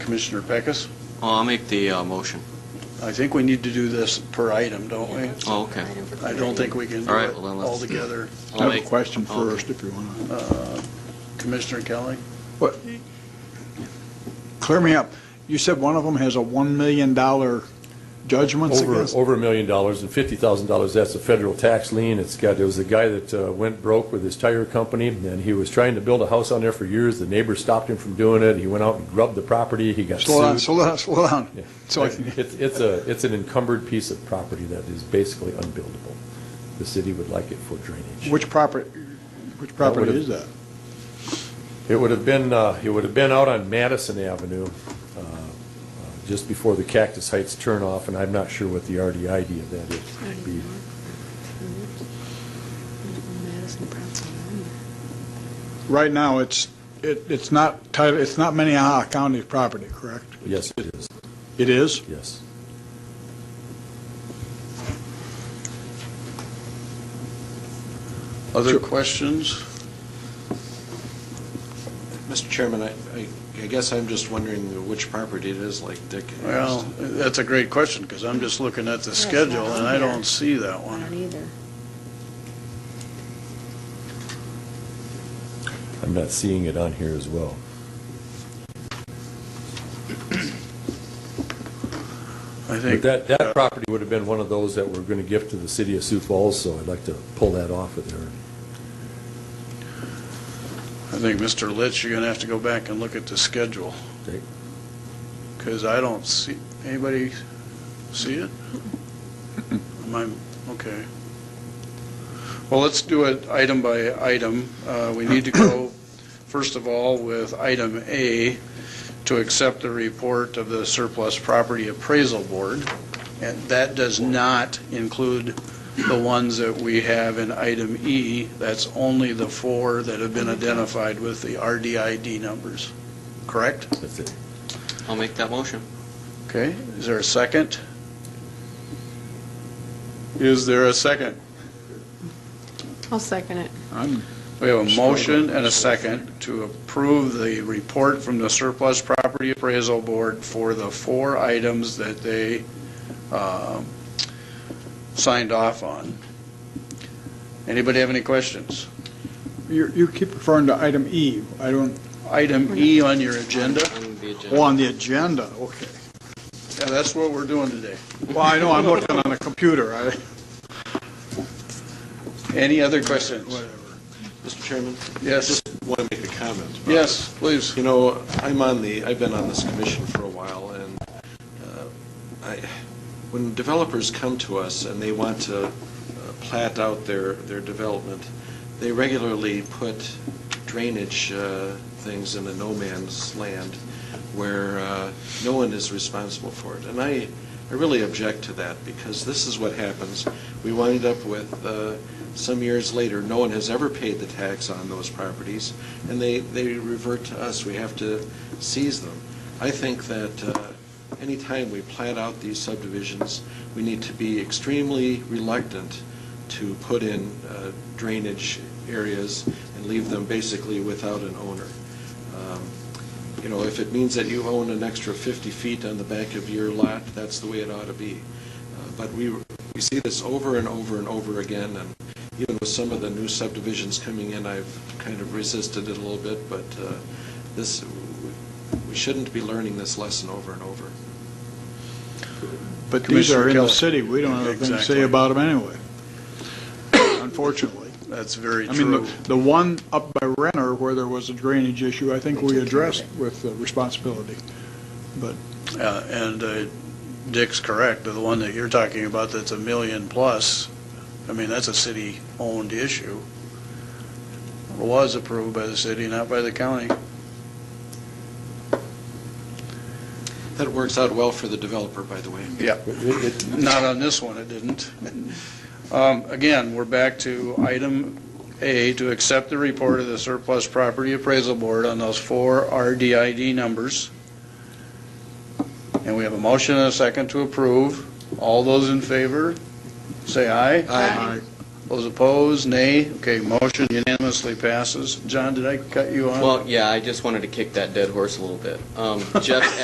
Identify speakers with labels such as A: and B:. A: Commissioner Pecas,
B: Oh, I'll make the uh, motion.
A: I think we need to do this per item, don't we?
B: Oh, okay.
A: I don't think we can do
B: All right,
A: it
B: well, then let's-
A: all together.
B: I'll
C: I have a
B: make- oh,
C: question
B: I'll-
C: first, if you want to.
A: Uh, Commissioner Kelly?
C: Clear me up. You said one of them has a $1 million judgment
D: Over,
C: against?
D: over a million dollars and fifty thousand dollars, that's a federal tax lien. It's got, it was a guy that uh, went broke with his tire company and he was trying to build a house on there for years. The neighbor stopped him from doing it. He went out and grubbed the property. He got
C: Slow down,
D: sued.
C: slow down, slow
D: Yeah.
C: down. uh, So I can-
D: It's, it's a, it's an encumbered piece of property that is basically unbuildable. The city would like it for drainage.
C: Which property, which property
D: would've-
C: is that?
D: It would have been, uh, it would have been out on Madison Avenue, uh, uh, just before the Cactus Heights turnoff, and I'm not sure what the RDID of that is. It'd be
C: Right now, it's, it it's not, title- it's not Minnehaha County property, correct?
D: Yes, it is,
C: It is?
D: yes.
A: Other questions?
E: Mr. Chairman, I, I- I guess I'm just wondering which property it is, like Dick. asked.
A: Well, that's a great question, because I'm just looking at the
F: Yeah, it's
A: schedule,
F: not
A: and
F: on
A: I
F: there.
A: don't see that
F: I don't
A: one.
F: either.
D: I'm not seeing it on here as well.
A: I
D: But
A: think, uh,
D: that, that property would have been one of those that we're going to give to the city of Sioux Falls, so I'd like to pull that off of there.
A: I think, Mr. Litch, you're going to have to go back and look at the schedule.
D: Okay.
A: Because I don't see, anybody see it? Am I, okay. Well, let's do it item by item. Uh, We need to go, first of all, with item A, to accept the report of the Surplus Property Appraisal Board. And that does not include the ones that we have in item E. That's only the four that have been identified with the RDID numbers, correct?
D: That's it.
B: I'll make that motion.
A: Okay, is there a second? Is there a second?
F: I'll second it.
C: I'm-
A: We have a motion and a second to approve the report from the Surplus Property Appraisal Board for the four items that they um, signed off on. Anybody have any questions?
C: You you keep referring to item E. I don't,
A: Item E on your agenda,
B: On the agenda.
C: oh, on the agenda, okay.
A: Yeah, that's what we're doing today.
C: Well, I know, I'm looking on a computer. I-
A: Any other questions?
E: Mr. Chairman?
A: Yes,
E: Just want to make a comment. about
A: yes,
E: it.
A: please.
E: You know, I'm on the, I've been on this commission for a while, and uh, I, when developers come to us and they want to uh, plat out their, their development, they regularly put drainage uh, things in the no man's land where uh, no one is responsible for it. And I, I really object to that, because this is what happens. We wind up with, uh, some years later, no one has ever paid the tax on those properties, and they, they revert to us. We have to seize them. I think that uh, anytime we plat out these subdivisions, we need to be extremely reluctant to put in uh, drainage areas and leave them basically without an owner. Um, You know, if it means that you own an extra 50 feet on the back of your lot, that's the way it ought to be. Uh, But we, we see this over and over and over again, and even with some of the new subdivisions coming in, I've kind of resisted it a little bit, but uh, this, we shouldn't be learning this lesson over and over.
C: But these are in
A: Commissioner Kelly.
C: the city, we don't have anything to
A: Exactly.
C: say about them anyway, unfortunately.
A: That's very
C: I mean,
A: true.
C: the the one up by Renner where there was a drainage issue, I think we addressed with the responsibility.
A: Uh, And uh, Dick's correct, the one that you're talking about that's a million plus, I mean, that's a city-owned issue. It Was approved by the city, not by the county.
E: That works out well for the developer, by the way.
A: Yeah. Not on this one, it didn't. Um, Again, we're back to item A, to accept the report of the Surplus Property Appraisal Board on those four RDID numbers. And we have a motion and a second to approve. All those in favor, say aye.
E: Aye.
A: Those opposed, nay. Okay, motion unanimously passes. John, did I cut you off?
B: Well, yeah, I just wanted to kick that dead horse a little bit. Um, Jeff